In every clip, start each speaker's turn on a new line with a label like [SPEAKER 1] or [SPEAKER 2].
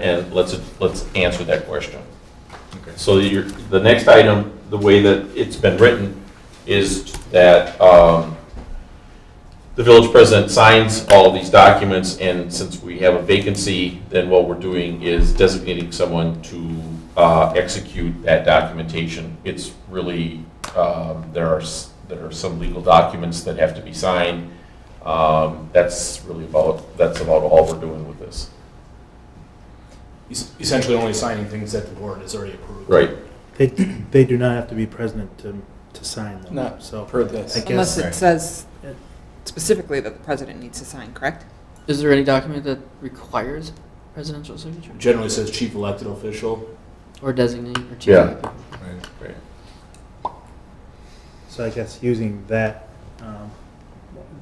[SPEAKER 1] And let's, let's answer that question.
[SPEAKER 2] Okay.
[SPEAKER 1] So your, the next item, the way that it's been written, is that um, the village president signs all these documents, and since we have a vacancy, then what we're doing is designating someone to uh, execute that documentation. It's really, um, there are, s- there are some legal documents that have to be signed. Um, That's really about, that's about all we're doing with this.
[SPEAKER 3] Es- essentially only signing things that the board has already approved.
[SPEAKER 1] Right.
[SPEAKER 4] They, they do not have to be president to, to sign them.
[SPEAKER 3] Not
[SPEAKER 4] So
[SPEAKER 3] per this.
[SPEAKER 4] I guess,
[SPEAKER 5] Unless
[SPEAKER 2] Right.
[SPEAKER 5] it says specifically that the president needs to sign, correct?
[SPEAKER 6] Is there any document that requires presidential signature
[SPEAKER 3] Generally says chief elected official.
[SPEAKER 6] or designate or chief?
[SPEAKER 1] Yeah.
[SPEAKER 2] Right.
[SPEAKER 1] Right.
[SPEAKER 4] so I guess using that, um,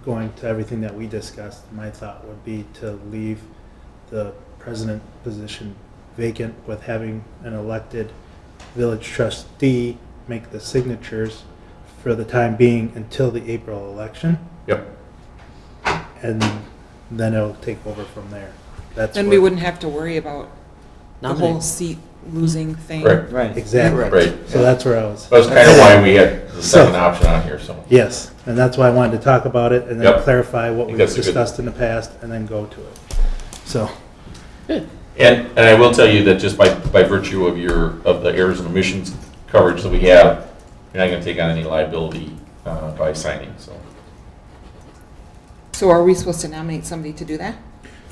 [SPEAKER 4] going to everything that we discussed, my thought would be to leave the president position vacant with having an elected village trustee make the signatures for the time being until the April election,
[SPEAKER 1] Yep.
[SPEAKER 4] and then it'll take over from there. That's
[SPEAKER 5] Then we
[SPEAKER 4] what-
[SPEAKER 5] wouldn't have to worry about the whole seat losing thing.
[SPEAKER 1] Correct.
[SPEAKER 4] Exactly.
[SPEAKER 1] Right.
[SPEAKER 4] So that's where I was.
[SPEAKER 1] That's kind of why we had the second option on here, so.
[SPEAKER 4] Yes, and that's why I wanted to talk about it and
[SPEAKER 1] Yep.
[SPEAKER 4] then clarify what
[SPEAKER 1] think
[SPEAKER 4] we've
[SPEAKER 1] that's a good-
[SPEAKER 4] discussed in the past and then go to it. So,
[SPEAKER 1] And, and I will tell you that just by, by virtue of your, of the errors and omissions coverage that we have, you're not going to take on any liability uh, by signing, so.
[SPEAKER 5] So are we supposed to nominate somebody to do that?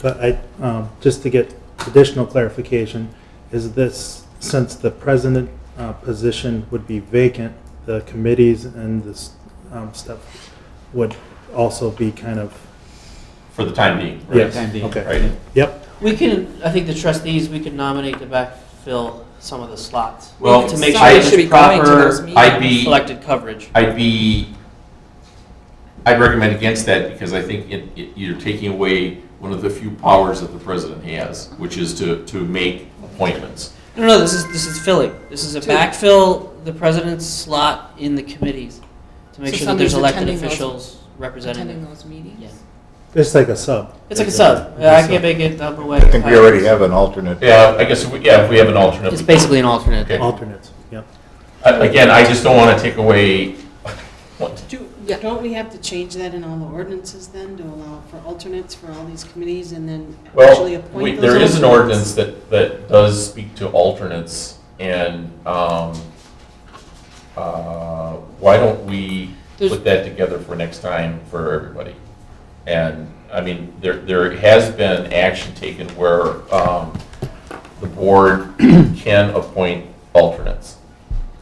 [SPEAKER 4] but I, um, just to get additional clarification, is this, since the president uh, position would be vacant, the committees and this um, stuff would also be kind of,
[SPEAKER 1] For the time being, right?
[SPEAKER 4] yes,
[SPEAKER 6] Time being.
[SPEAKER 4] okay.
[SPEAKER 1] Right?
[SPEAKER 4] Yep,
[SPEAKER 6] We can, I think the trustees, we can nominate to backfill some of the slots.
[SPEAKER 1] Well,
[SPEAKER 6] To make sure
[SPEAKER 1] I-
[SPEAKER 6] that
[SPEAKER 5] should be
[SPEAKER 6] it's
[SPEAKER 5] going to those
[SPEAKER 6] proper,
[SPEAKER 5] meetings.
[SPEAKER 1] I'd be,
[SPEAKER 6] selected coverage.
[SPEAKER 1] I'd be, I'd recommend against that because I think it, it- you're taking away one of the few powers that the president has, which is to, to make appointments.
[SPEAKER 6] No, no, this is, this is filling. This is a
[SPEAKER 5] Two.
[SPEAKER 6] backfill, the president's slot in the committees to make
[SPEAKER 5] So
[SPEAKER 6] sure that there's
[SPEAKER 5] somebody's
[SPEAKER 6] elected
[SPEAKER 5] attending those-
[SPEAKER 6] officials represented.
[SPEAKER 5] Attending those meetings?
[SPEAKER 6] Yeah.
[SPEAKER 4] it's like a sub.
[SPEAKER 6] It's like a sub. Yeah, I can't make it up away.
[SPEAKER 2] I think we already have an alternate.
[SPEAKER 1] Yeah, I guess, we- yeah, if we have an alternate.
[SPEAKER 6] It's
[SPEAKER 1] we-
[SPEAKER 6] basically an alternate.
[SPEAKER 1] Okay.
[SPEAKER 4] Alternates, yep.
[SPEAKER 1] Uh, Again, I just don't want to take away, what,
[SPEAKER 7] Do,
[SPEAKER 5] Yeah.
[SPEAKER 7] don't we have to change that in all the ordinances then, to allow for alternates for all these committees and then actually
[SPEAKER 1] Well, we-
[SPEAKER 7] appoint those?
[SPEAKER 1] there is an ordinance
[SPEAKER 7] alternates?
[SPEAKER 1] that, that does speak to alternates, and, um, uh, why don't we
[SPEAKER 6] There's-
[SPEAKER 1] put that together for next time for everybody? And, I mean, there, there has been action taken where, um, the board can appoint alternates.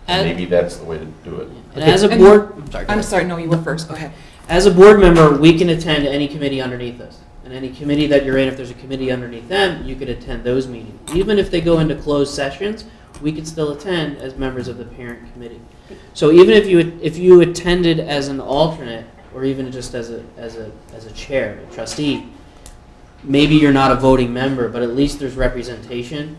[SPEAKER 1] And
[SPEAKER 6] And-
[SPEAKER 1] maybe that's the way to do it.
[SPEAKER 6] And as a
[SPEAKER 5] And-
[SPEAKER 6] board, I'm sorry. go
[SPEAKER 5] I'm
[SPEAKER 6] ahead.
[SPEAKER 5] sorry, no, you were first, go ahead.
[SPEAKER 6] As a board member, we can attend any committee underneath us. And any committee that you're in, if there's a committee underneath them, you could attend those meetings. Even if they go into closed sessions, we could still attend as members of the parent committee. So even if you, if you attended as an alternate, or even just as a, as a, as a chair, a trustee, maybe you're not a voting member, but at least there's representation,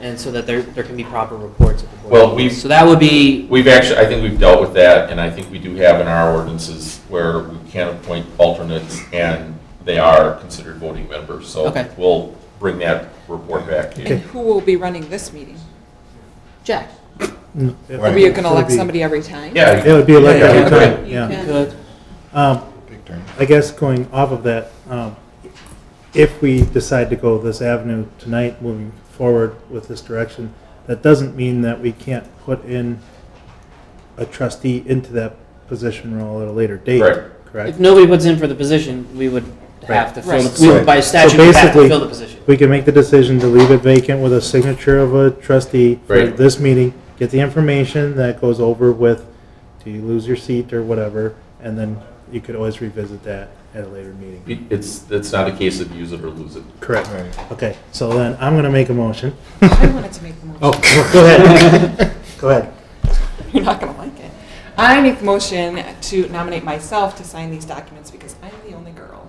[SPEAKER 6] and so that there, there can be proper reports at the board.
[SPEAKER 1] Well, we've-
[SPEAKER 6] So that would be,
[SPEAKER 1] We've actually, I think we've dealt with that, and I think we do have in our ordinances where we can appoint alternates, and they are considered voting members, so
[SPEAKER 6] Okay.
[SPEAKER 1] we'll bring that report back. to you.
[SPEAKER 4] Okay.
[SPEAKER 5] And who will be running this meeting? Jack?
[SPEAKER 4] No, it
[SPEAKER 2] Right.
[SPEAKER 5] Are
[SPEAKER 4] would-
[SPEAKER 5] we
[SPEAKER 4] it would
[SPEAKER 5] gonna elect
[SPEAKER 4] be-
[SPEAKER 5] somebody every time?
[SPEAKER 1] Yeah,
[SPEAKER 4] It would be like
[SPEAKER 1] Yeah,
[SPEAKER 4] every
[SPEAKER 1] yeah,
[SPEAKER 4] time,
[SPEAKER 5] okay.
[SPEAKER 4] yeah.
[SPEAKER 5] Yeah.
[SPEAKER 6] good,
[SPEAKER 4] Um,
[SPEAKER 2] Big turn.
[SPEAKER 4] I guess going off of that, um, if we decide to go this avenue tonight, moving forward with this direction, that doesn't mean that we can't put in a trustee into that position role at a later date,
[SPEAKER 1] Correct.
[SPEAKER 6] If
[SPEAKER 4] correct?
[SPEAKER 6] nobody puts in for the position, we would have to fill,
[SPEAKER 5] Right.
[SPEAKER 6] the- we would by statute
[SPEAKER 4] So
[SPEAKER 6] we have to
[SPEAKER 4] basically-
[SPEAKER 6] fill the position.
[SPEAKER 4] We can make the decision to leave it vacant with a signature of a trustee for
[SPEAKER 1] Right.
[SPEAKER 4] this meeting, get the information that goes over with, do you lose your seat or whatever, and then you could always revisit that at a later meeting.
[SPEAKER 1] It- It's, it's not a case of use it or lose it.
[SPEAKER 4] Correct.
[SPEAKER 2] Right.
[SPEAKER 4] Okay, so then I'm gonna make a motion.
[SPEAKER 5] I wanted to make the motion.
[SPEAKER 4] Oh, go ahead. Go ahead.
[SPEAKER 5] You're not gonna like it. I make the motion to nominate myself to sign these documents because I'm the only girl.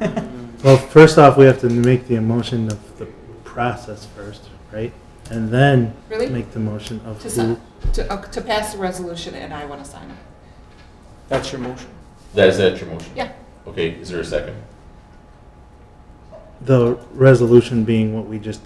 [SPEAKER 6] Mm.
[SPEAKER 4] Well, first off, we have to make the motion of the process first, right? And then
[SPEAKER 5] Really?
[SPEAKER 4] make the motion of
[SPEAKER 5] To
[SPEAKER 4] who.
[SPEAKER 5] sign, to, uh, to pass the resolution and I wanna sign it.
[SPEAKER 6] That's your motion.
[SPEAKER 1] That is that your motion?
[SPEAKER 5] Yeah.
[SPEAKER 1] Okay, is there a second?
[SPEAKER 4] The resolution being what we just